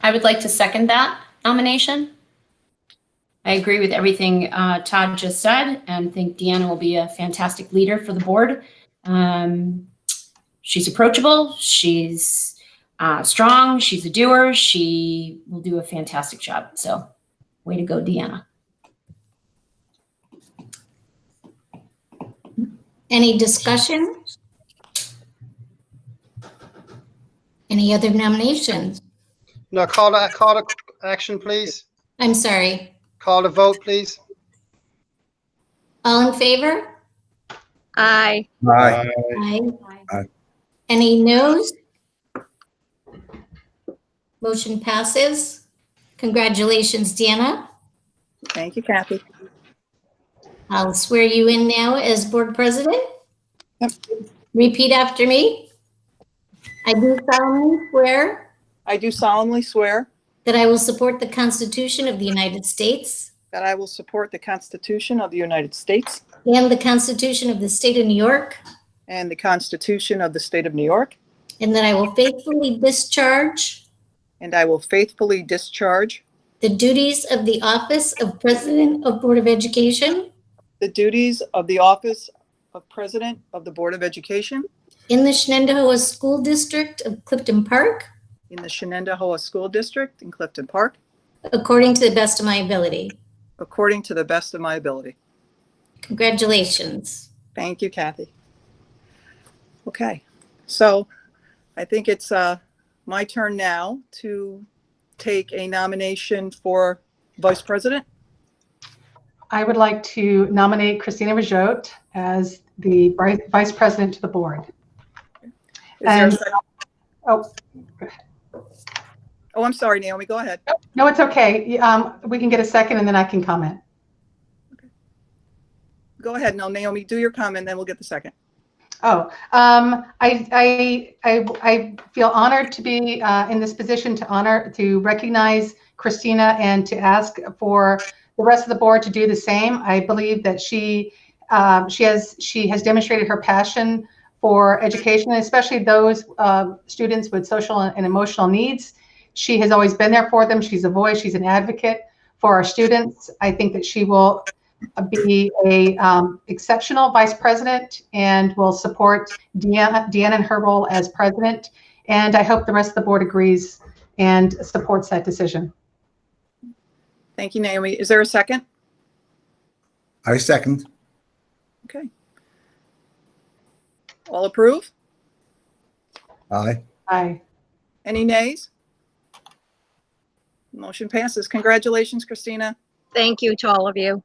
I would like to second that nomination. I agree with everything uh, Todd just said and think Deanna will be a fantastic leader for the board. Um, She's approachable, she's uh, strong, she's a doer, she will do a fantastic job. So way to go, Deanna. Any discussion? Any other nominations? No, call to, call to action, please. I'm sorry. Call to vote, please. All in favor? Aye. Aye. Aye. Aye. Any noes? Motion passes. Congratulations, Deanna. Thank you, Kathy. I'll swear you in now as board president. Repeat after me. I do solemnly swear I do solemnly swear that I will support the Constitution of the United States that I will support the Constitution of the United States and the Constitution of the State of New York, and the Constitution of the State of New York, and that I will faithfully discharge and I will faithfully discharge the duties of the office of President of Board of Education the duties of the office of President of the Board of Education in the Shenandoah School District of Clifton Park in the Shenandoah School District in Clifton Park, according to the best of my ability. according to the best of my ability. Congratulations. Thank you, Kathy. Okay, so I think it's uh, my turn now to take a nomination for Vice President. I would like to nominate Christina Rajot as the bri- Vice President to the Board. Is there a And- second? Oh, Oh, I'm sorry, Naomi, go ahead. no, it's okay. Um, We can get a second and then I can comment. Go ahead, no, Naomi, do your comment, then we'll get the second. Oh, um, I, I, I, I feel honored to be uh, in this position to honor, to recognize Christina and to ask for the rest of the board to do the same. I believe that she, um, she has, she has demonstrated her passion for education, especially those uh, students with social and emotional needs. She has always been there for them. She's a voice, she's an advocate for our students. I think that she will be a um, exceptional vice president and will support Deanna, Deanna in her role as president. And I hope the rest of the board agrees and supports that decision. Thank you, Naomi. Is there a second? I second. Okay. All approve? Aye. Aye. Any nays? Motion passes. Congratulations, Christina. Thank you to all of you.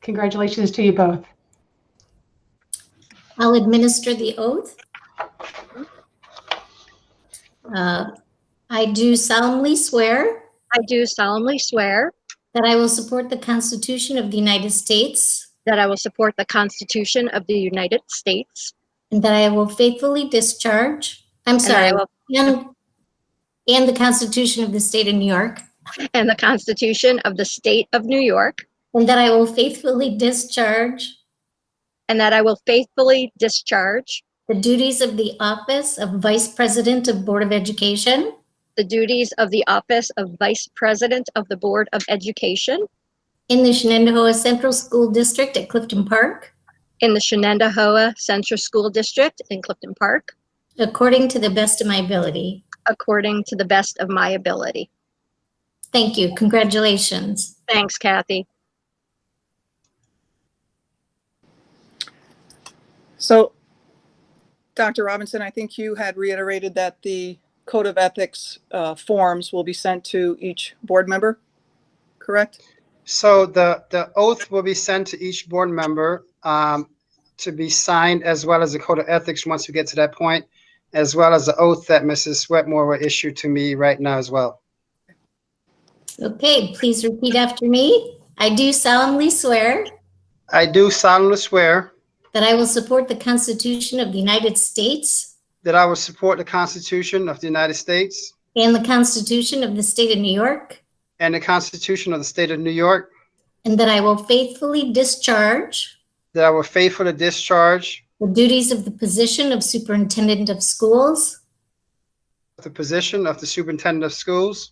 Congratulations to you both. I'll administer the oath. Uh, I do solemnly swear I do solemnly swear that I will support the Constitution of the United States that I will support the Constitution of the United States. and that I will faithfully discharge, I'm and that I sorry, will- and and the Constitution of the State of New York, And the Constitution of the State of New York. and that I will faithfully discharge And that I will faithfully discharge the duties of the office of Vice President of Board of Education the duties of the office of Vice President of the Board of Education in the Shenandoah Central School District at Clifton Park, in the Shenandoah Central School District in Clifton Park, according to the best of my ability. according to the best of my ability. Thank you. Congratulations. Thanks, Kathy. So, Dr. Robinson, I think you had reiterated that the Code of Ethics uh, forms will be sent to each board member, correct? So the, the oath will be sent to each board member um, to be signed, as well as the code of ethics, once we get to that point, as well as the oath that Mrs. Sweatmore will issue to me right now as well. Okay, please repeat after me. I do solemnly swear I do solemnly swear that I will support the Constitution of the United States that I will support the Constitution of the United States and the Constitution of the State of New York, and the Constitution of the State of New York, and that I will faithfully discharge that I will faithfully discharge the duties of the position of Superintendent of Schools the position of the Superintendent of Schools